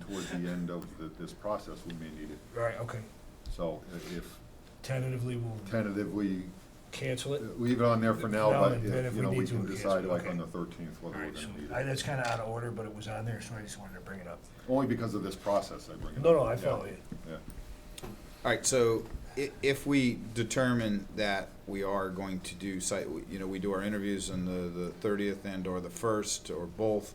towards the end of the- this process, we may need it. Right, okay. So i- if Tentatively, we'll tentatively, cancel uh, it. leave it on there for now, No, but, and if- then if you we know, we need to, can we can, decide like on okay. the thirteenth All whether we're right, so gonna I, need it. that's kind of out of order, but it was on there, so I just wanted to bring it up. Only because of this process I bring it up. No, no, I Yeah, follow you. Yeah. All right, so i- if we determine that we are going to do site, you know, we do our interviews on the, the thirtieth and or the first or both,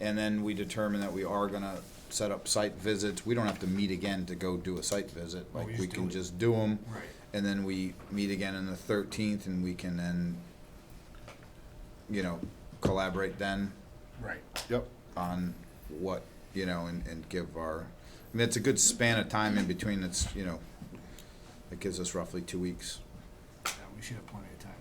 and then we determine that we are gonna set up site visits, we don't have to meet again to go do a site visit, No, we like just we do can it. just do them. Right. And then we meet again on the thirteenth and we can then, you know, collaborate then Right. Yep, on what, you know, and, and give our, I mean, it's a good span of time in between, it's, you know, it gives us roughly two weeks. Yeah, we should have plenty of time.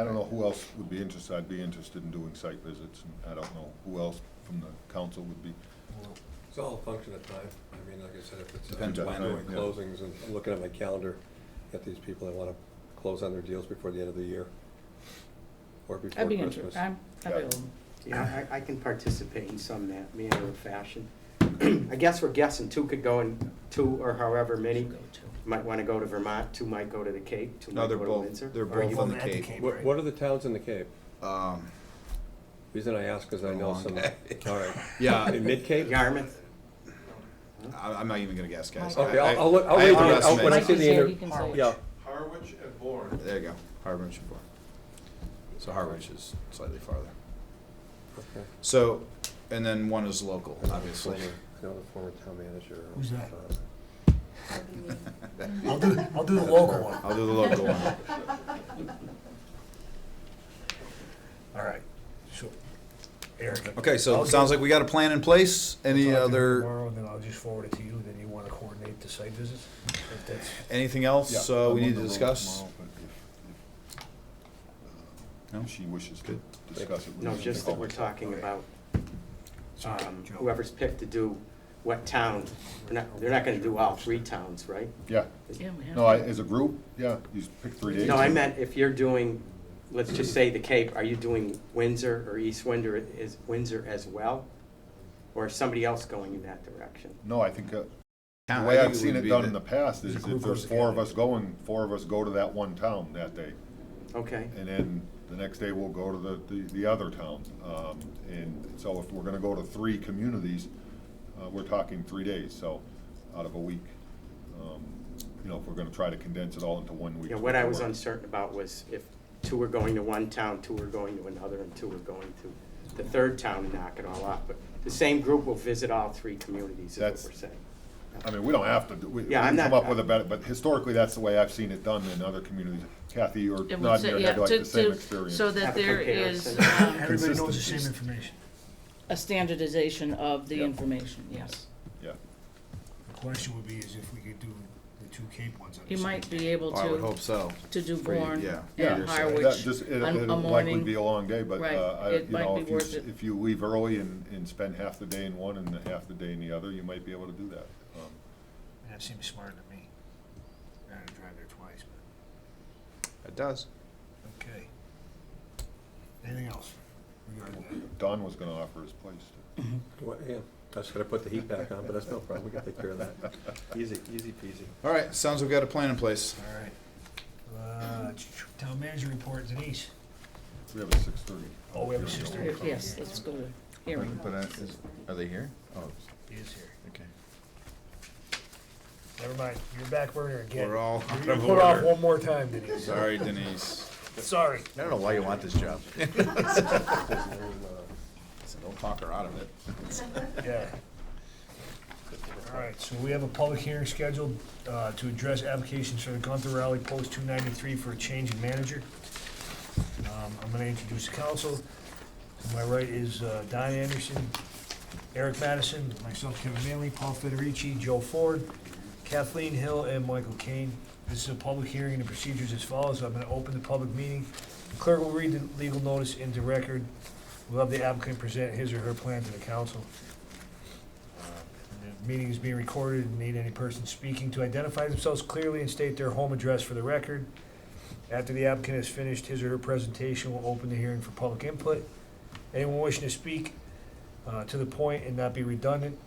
I don't know who else would be interested, I'd be interested in doing site visits, and I don't know who else from the council would be. We'll- It's all a function of time. I mean, like I said, if it's. uh, Depends on I'm when, doing yeah. Closings and I'm looking at my calendar, at these people that wanna close on their deals before the end of the year. Or before I'd be Christmas. interested, I'm available. Yeah, I, I can participate in some ma- manner or fashion. I guess we're guessing two could go in, two or however many. Go to. Might want to go to Vermont, two might go to the Cape, two No, might they're go to both- Windsor. they're Or both you- on the Well, at Cape. What, right? what are the towns in the Cape? Um, Reason I ask is I Been a know long some, day. all right. yeah, In mid-Cape? Yarmouth, I, I'm not even gonna guess, guys. Okay, I- I'll, I'll look, I'll I wait, till- I'll- Oh, underestimate. when I Mike see is the, here, he inter- can say. yeah, Harwich and Bourne. There you go, Harwich and Bourne. So Harwich is slightly farther. Okay. So, and then one is local, obviously. Former- I know the former town manager. Who's that? uh, I'll do, I'll do the local one. I'll do the local one. All right, so, Eric. Okay, so I'll it sounds do- like we got a plan in place. Any I'll do it other, Tomorrow, and then I'll just forward it to you, then you want to coordinate the site visits? If that's, anything else Yeah, uh, I'm we on need the to road discuss? tomorrow, but if- if, uh, No? She wishes to Good. discuss it. with no, us. just that we're talking about, Sorry, um, Joe. whoever's picked to do what town. They're not, they're not going to do all three towns, right? Yeah, Yeah, we have no, I, to. as a group, yeah, you pick three days. No, I meant if you're doing, let's just say the Cape, are you doing Windsor or East Windsor, is Windsor as well? Or is somebody else going in that direction? No, I think, uh, the Town- I way think I've would seen it be done the- in the past is There's a if group there's goes four of together. us going, four of us go to that one town that day. Okay. And then the next day, we'll go to the, the, the other town. Um, and so if we're gonna go to three communities, uh, we're talking three days, so out of a week. Um, You know, if we're gonna try to condense it all into one week. Yeah, what I was uncertain about was if two were going to one town, two were going to another, and two were going to the third town and knock it all off. But the same group will visit all three communities, is what That's- we're saying. I mean, we don't have to, do- we, we Yeah, I'm can come not- up with a better, but historically, that's the way I've seen it done in other communities. Kathy or It would Nadia say- had yeah, like to- the same to- experience. So that Have a there comparison. is um, Everybody knows the same Consistency. information. a standardization of the Yeah. information, yes. Yeah, The question would be is if we could do the two Cape ones. on the You same might day. be able Oh, I would hope to, so. to do For you, Bourne yeah. yeah. and That Harwich just- it- on a It'll likely be morning. a long day, but, Right, uh, I, it you might know, be if you, worth s- it. if you leave early and, and spend half the day in one and half the day in the other, you might be able to do that. Um, That seems smarter to me. I had to drive there twice, but, It does. okay. Anything else regarding that? Don was gonna offer his place. too. what- Yeah, I just gotta put the heat back on, but that's no problem. We can take care of that. Easy, easy peasy. All right, sounds we've got a plan in place. All right. Uh, ch- ch- Town manager report, Denise. We have a six thirty. Oh, we have a sister. Here, Yes, let's go to hearing. But uh, is, are they here? Oh, Is here. okay. Never mind, you're back burner again. We're all out You're of put off order. one more time, Denise. Sorry, Denise. Sorry. I don't know why you want this job. So don't talk her out of it. Yeah. All right, so we have a public hearing scheduled uh, to address applications for the Gunther Rally Post 293 for a change in manager. Um, I'm going to introduce the council. To my right is uh, Don Anderson, Eric Madison, myself, Kevin Manley, Paul Federici, Joe Ford, Kathleen Hill, and Michael Kane. This is a public hearing, and the procedure's as follows. I'm going to open the public meeting. Clerk will read the legal notice into record. We'll have the applicant present his or her plan to the council. The meeting is being recorded and need any person speaking to identify themselves clearly and state their home address for the record. After the applicant has finished his or her presentation, we'll open the hearing for public input. Anyone wishing to speak uh, to the point and not be redundant